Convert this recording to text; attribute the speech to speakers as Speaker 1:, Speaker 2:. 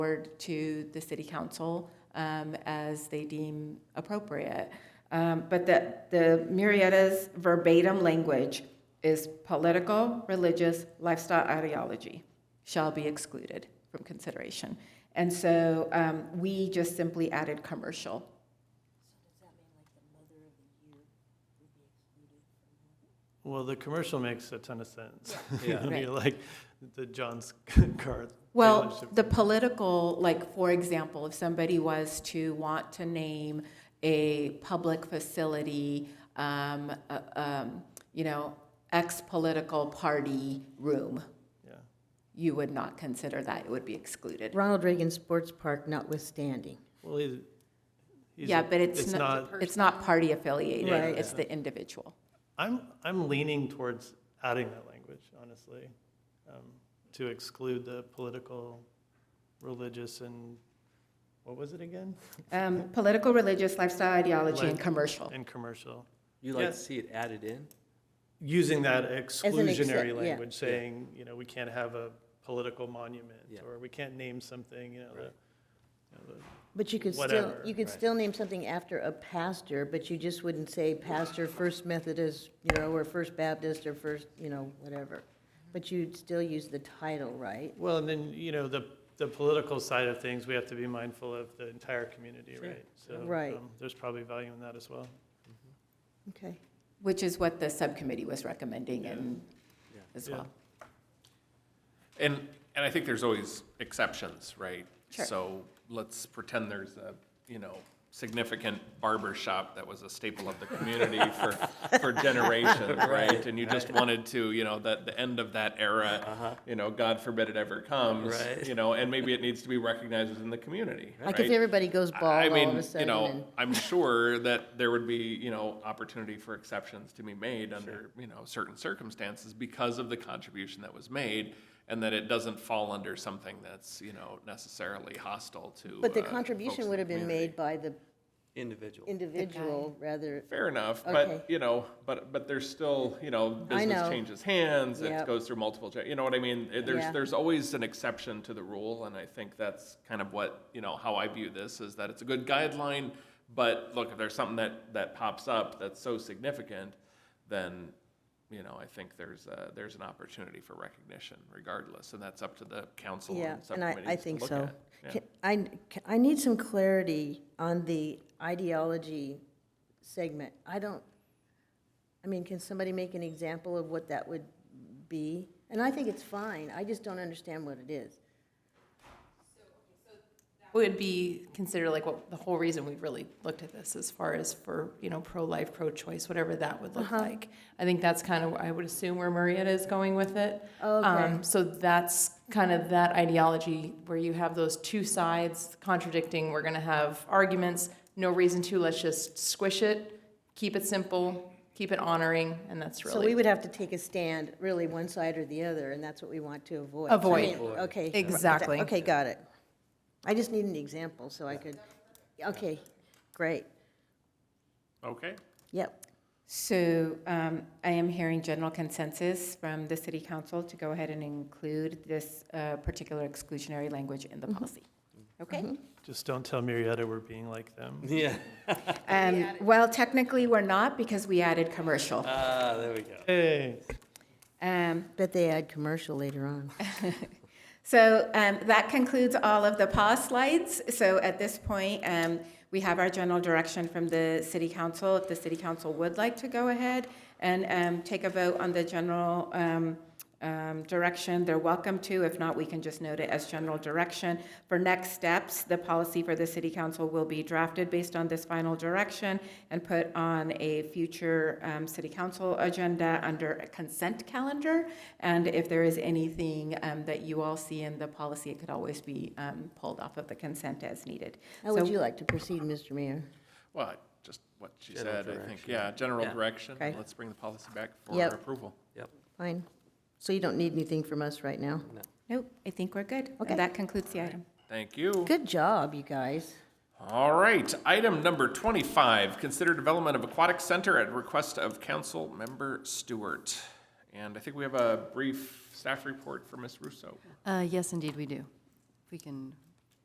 Speaker 1: forward to the city council um, as they deem appropriate. Um, But the, the Murrieta's verbatim language is political, religious, lifestyle ideology shall be excluded from consideration. And so um, we just simply added commercial.
Speaker 2: Well, the commercial makes a ton of sense. I
Speaker 1: Right.
Speaker 2: mean, like the John's car.
Speaker 1: Well,
Speaker 2: dealership.
Speaker 1: the political, like, for example, if somebody was to want to name a public facility, um, uh, um, you know, ex-political party room,
Speaker 2: Yeah.
Speaker 1: you would not consider that, it would be excluded.
Speaker 3: Ronald Reagan Sports Park notwithstanding.
Speaker 2: Well, he's. he's
Speaker 1: Yeah,
Speaker 2: a-
Speaker 1: but it's
Speaker 2: It's
Speaker 1: not,
Speaker 2: not,
Speaker 1: it's not party affiliated,
Speaker 3: Right.
Speaker 1: it's the individual.
Speaker 2: I'm, I'm leaning towards adding that language, honestly, um, to exclude the political, religious, and, what was it again?
Speaker 1: Um, Political, religious, lifestyle, ideology, and
Speaker 2: Like-
Speaker 1: commercial.
Speaker 2: And commercial.
Speaker 4: You like
Speaker 2: Yeah.
Speaker 4: to see it added in?
Speaker 2: Using that
Speaker 3: excep- yeah.
Speaker 2: exclusionary language, saying, you know, we can't have a political monument,
Speaker 4: Yeah.
Speaker 2: or we can't name something, you know, the- you know, the
Speaker 3: But you could still,
Speaker 2: Whatever,
Speaker 3: you could
Speaker 4: right.
Speaker 3: still name something after a pastor, but you just wouldn't say pastor First Methodist, you know, or First Baptist, or First, you know, whatever. But you'd still use the title, right?
Speaker 2: Well, and then, you know, the, the political side of things, we have to be mindful of the entire community,
Speaker 4: Sure.
Speaker 2: right? So,
Speaker 3: Right.
Speaker 2: um, There's probably value in that as well.
Speaker 3: Okay.
Speaker 1: Which is what the subcommittee was recommending and,
Speaker 4: Yeah.
Speaker 1: as
Speaker 2: Yeah.
Speaker 1: well.
Speaker 5: And, and I think there's always exceptions, right?
Speaker 1: Sure.
Speaker 5: So let's pretend there's a, you know, significant barber shop that was a staple of the community for, for generations, right? And you just wanted to, you know, that, the end of that era, you know, God forbid it ever comes.
Speaker 4: Right.
Speaker 5: You know, and maybe it needs to be recognized within the community, right?
Speaker 3: Like if everybody goes
Speaker 5: I
Speaker 3: bald all of
Speaker 5: mean,
Speaker 3: a
Speaker 5: you
Speaker 3: sudden and,
Speaker 5: know, I'm sure that there would be, you know, opportunity for exceptions to be made under, you know, certain circumstances because of the contribution that was made and that it doesn't fall under something that's, you know, necessarily hostile to.
Speaker 3: but the
Speaker 5: uh, folks
Speaker 3: contribution
Speaker 5: in
Speaker 3: would
Speaker 5: the
Speaker 3: have been
Speaker 5: community.
Speaker 3: made by the
Speaker 4: Individual.
Speaker 3: individual rather,
Speaker 5: Fair enough,
Speaker 3: Okay.
Speaker 5: but, you know, but, but there's still, you know,
Speaker 3: I
Speaker 5: business
Speaker 3: know.
Speaker 5: changes hands,
Speaker 3: Yep.
Speaker 5: it goes through multiple, cha- you know what I mean? Uh,
Speaker 3: Yeah.
Speaker 5: There's, there's always an exception to the rule, and I think that's kind of what, you know, how I view this, is that it's a good guideline, but look, if there's something that, that pops up that's so significant, then, you know, I think there's, uh, there's an opportunity for recognition regardless, and that's up to the council
Speaker 3: yeah.
Speaker 5: and
Speaker 3: And I,
Speaker 5: subcommittees
Speaker 3: I
Speaker 5: to
Speaker 3: think
Speaker 5: look
Speaker 3: so.
Speaker 5: at. Yeah.
Speaker 3: Can- I, can- I need some clarity on the ideology segment. I don't, I mean, can somebody make an example of what that would be? And I think it's fine, I just don't understand what it is.
Speaker 6: would be considered like what the whole reason we really looked at this as far as for, you know, pro-life, pro-choice, whatever that would look
Speaker 3: Uh-huh.
Speaker 6: like. I think that's kind of, I would assume where Marietta is going with it.
Speaker 3: Oh, Okay.
Speaker 6: Um, So that's kind of that ideology where you have those two sides contradicting, we're gonna have arguments, no reason to, let's just squish it, keep it simple, keep it honoring, and that's
Speaker 3: So we
Speaker 6: really.
Speaker 3: would have to take a stand, really, one side or the other, and that's what we want to avoid. I mean,
Speaker 6: Avoid.
Speaker 3: Okay.
Speaker 6: Exactly.
Speaker 3: Okay, got it. I just need an example, so I could, okay, great,
Speaker 5: Okay.
Speaker 3: yep.
Speaker 1: So um, I am hearing general consensus from the city council to go ahead and include this uh, particular exclusionary language in the policy. Okay?
Speaker 2: Just don't tell Marietta we're being like them.
Speaker 4: Yeah,
Speaker 1: Um, Well, technically, we're not because we added commercial.
Speaker 4: ah, there we go.
Speaker 2: Hey,
Speaker 1: Um,
Speaker 3: Bet they add commercial later on.
Speaker 1: So um, that concludes all of the pause slides. So at this point, um, we have our general direction from the city council. If the city council would like to go ahead and um, take a vote on the general um, um, direction, they're welcome to. If not, we can just note it as general direction. For next steps, the policy for the city council will be drafted based on this final direction and put on a future um, city council agenda under a consent calendar. And if there is anything um, that you all see in the policy, it could always be um, pulled off of the consent as needed.
Speaker 3: How Oh, would you like to proceed, Mr. Mayor?
Speaker 5: Well, just what she
Speaker 4: General
Speaker 5: said, I think,
Speaker 4: direction.
Speaker 5: yeah, general
Speaker 4: Yeah.
Speaker 5: direction,
Speaker 3: Okay.
Speaker 5: let's bring the policy back for
Speaker 3: Yep.
Speaker 5: approval.
Speaker 4: Yep.
Speaker 3: Fine. So you don't need anything from us right now?
Speaker 1: Nope, I think we're good.
Speaker 3: Okay.
Speaker 1: And that concludes the item.
Speaker 5: Thank you.
Speaker 3: Good job, you guys.
Speaker 5: All right, item number twenty-five, consider development of aquatic center at request of council member Stewart. And I think we have a brief staff report for Ms. Russo.
Speaker 7: Uh, Yes, indeed, we do. If we can